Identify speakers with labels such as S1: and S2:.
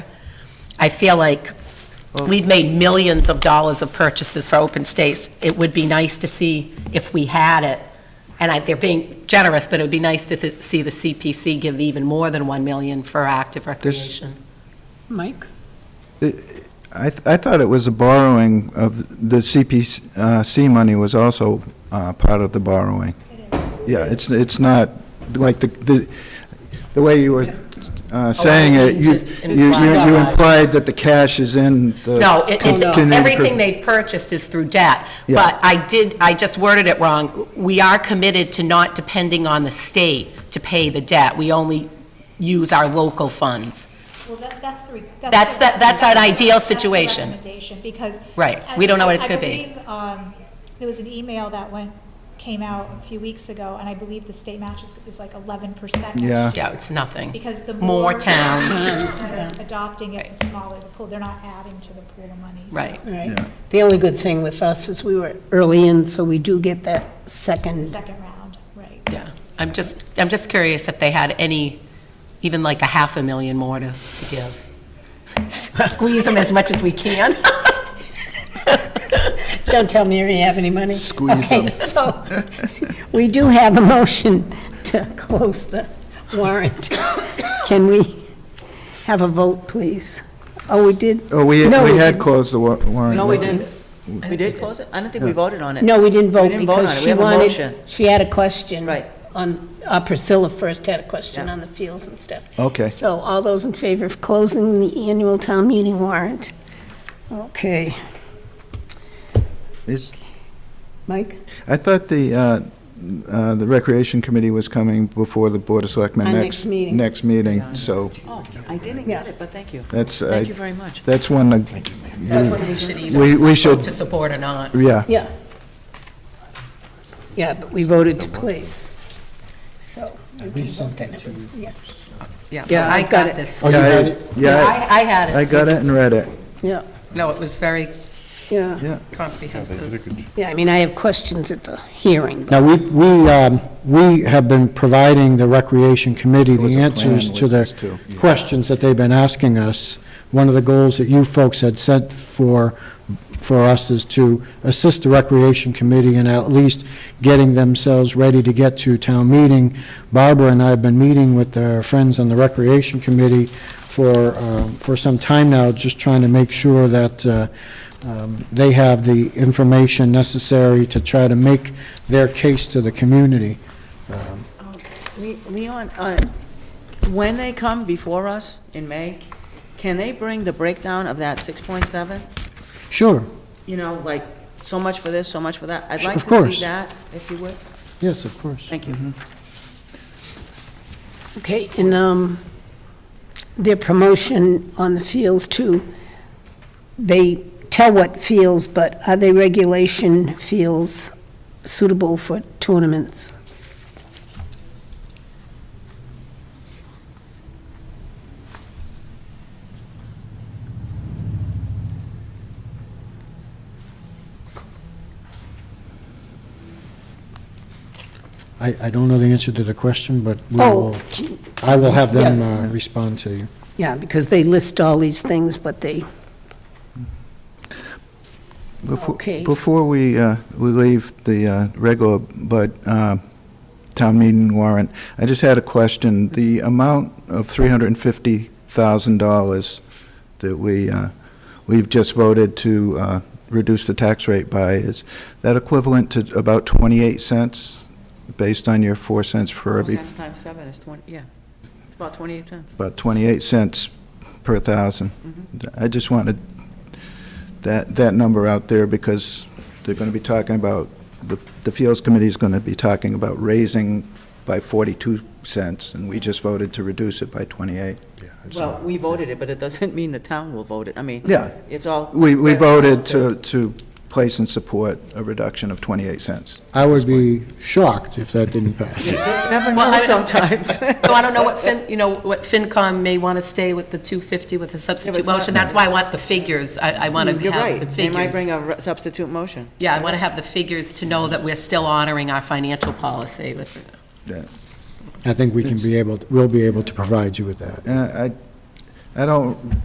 S1: I feel like we've made millions of dollars of purchases for open space. It would be nice to see if we had it, and I, they're being generous, but it would be nice to th- see the CPC give even more than 1 million for active recreation.
S2: Mike?
S3: I, th- I thought it was a borrowing of, the CPC money was also uh, part of the borrowing. Yeah, it's, it's not, like, the, the the way you were uh, saying it, you,
S1: meant to
S3: you
S1: imply.
S3: you implied that the cash is in the.
S1: No, it-
S3: con-
S1: it-
S3: con-
S1: everything they've purchased is through debt.
S3: Yeah.
S1: But I did, I just worded it wrong. We are committed to not depending on the state to pay the debt. We only use our local funds.
S4: Well, that, that's the. re-
S1: That's
S4: the
S1: the- that's an ideal
S4: recommendation. That's the
S1: situation.
S4: recommendation, because.
S1: Right.
S4: I
S1: We don't know what
S4: believe-
S1: it's gonna be.
S4: I believe, um, there was an email that went, came out a few weeks ago, and I believe the state match is, is like eleven percent.
S3: Yeah,
S1: Yeah, it's nothing.
S4: Because the
S1: More
S4: more.
S1: towns.
S4: that are Adopting it, the smaller the pool, they're not adding to the pool of money. so-
S1: Right.
S2: Right.
S3: Yeah.
S2: The only good thing with us is we were early in, so we do get that
S4: The
S2: second.
S4: second round, right.
S1: Yeah, I'm just, I'm just curious if they had any, even like a half a million more to, to give. Squeeze them as much as we can.
S2: Don't tell me you have any money.
S3: Squeeze
S2: Okay,
S3: them.
S2: So, we do have a motion to close the warrant. Can we have a vote, please? Oh, we did?
S3: oh, we,
S2: No,
S3: we had
S2: didn't.
S3: closed the wa- warrant.
S5: No, we didn't. We did close it? I don't think we voted on it.
S2: No, we didn't vote
S5: We didn't vote on
S2: because
S5: it. We
S2: she
S5: have a
S2: wanted,
S5: motion.
S2: she had a question.
S5: Right.
S2: On, uh, Priscilla first had a question
S5: Yeah.
S2: on the fields and stuff.
S3: Okay.
S2: So all those in favor of closing the annual town meeting warrant? Okay,
S3: Is,
S2: Mike?
S3: I thought the, uh, uh, the Recreation Committee was coming before the Board of Selectmen
S2: Our
S3: next.
S2: next meeting.
S3: Next meeting, so
S5: Oh, I didn't
S2: Yeah.
S5: get it, but thank you.
S3: that's.
S5: Thank
S3: I-
S5: you very much.
S3: That's one, that-
S1: That's what we should either
S3: We- we
S1: vote
S3: should-
S1: To support or not.
S3: yeah.
S2: Yeah. Yeah, but we voted to place, so we can vote that. Yeah, Yeah, I
S1: I
S2: got
S1: got
S2: it.
S1: this.
S3: Yeah, I- Yeah,
S1: I, I had
S3: I
S1: it.
S3: got it and read it.
S2: Yeah,
S1: No, it was very
S2: yeah,
S3: Yeah,
S1: comprehensive.
S2: yeah, I mean, I have questions at the hearing, but
S6: Now, we, we, um, we have been providing the Recreation Committee
S3: There was
S6: the
S3: a plan
S6: answers to
S3: with
S6: the
S3: this, too. Yeah.
S6: questions that they've been asking us. One of the goals that you folks had set for, for us is to assist the Recreation Committee in at least getting themselves ready to get to town meeting. Barbara and I have been meeting with our friends on the Recreation Committee for, um, for some time now, just trying to make sure that uh, um, they have the information necessary to try to make their case to the community.
S5: Le- Leon, uh, when they come before us in May, can they bring the breakdown of that 6.7?
S6: Sure,
S5: You know, like, so much for this, so much for that? I'd
S6: Sure,
S5: like
S6: of
S5: to
S6: course.
S5: see that, if you would.
S6: yes, of course.
S5: Thank you.
S2: okay, and, um, their promotion on the fields too, they tell what fields, but are they regulation fields suitable for tournaments?
S6: I, I don't know the answer to the question, but we
S2: Oh,
S6: will, I will have them
S2: Yeah.
S6: uh, respond to you.
S2: yeah, because they list all these things, but they,
S3: Befo-
S2: Okay.
S3: Before we, uh, we leave the uh, regular, but uh, town meeting warrant, I just had a question. The amount of $350,000 that we, uh, we've just voted to uh, reduce the tax rate by, is that equivalent to about 28 cents, based on your 4 cents for
S5: Four
S3: every,
S5: cents times seven is 20, yeah. It's about 28 cents.
S3: about 28 cents per thousand? I just wanted that, that number out there because they're going to be talking about, the the Fields Committee is going to be talking about raising by 42 cents, and we just voted to reduce it by 28.
S5: Well, we voted it, but it doesn't mean the town will vote it. I mean,
S3: Yeah.
S5: it's all...
S3: We, we voted to, to place and support a reduction of 28 cents.
S6: I would be shocked if that didn't pass.
S5: You just never
S1: Well,
S5: know
S1: I-
S5: sometimes.
S1: So I don't know what Fin, you know, what FinCom may want to stay with the 250 with a substitute
S5: it's not- Mm,
S1: motion. That's why I want the figures. I, I want to
S5: You're
S1: have
S5: right.
S1: the
S5: They
S1: figures.
S5: might bring a re- substitute motion.
S1: Yeah, I want to have the figures to know that we're still honoring our financial policy with it.
S6: I think we can be able, we'll be able to provide you with that.
S3: And Uh, I, I don't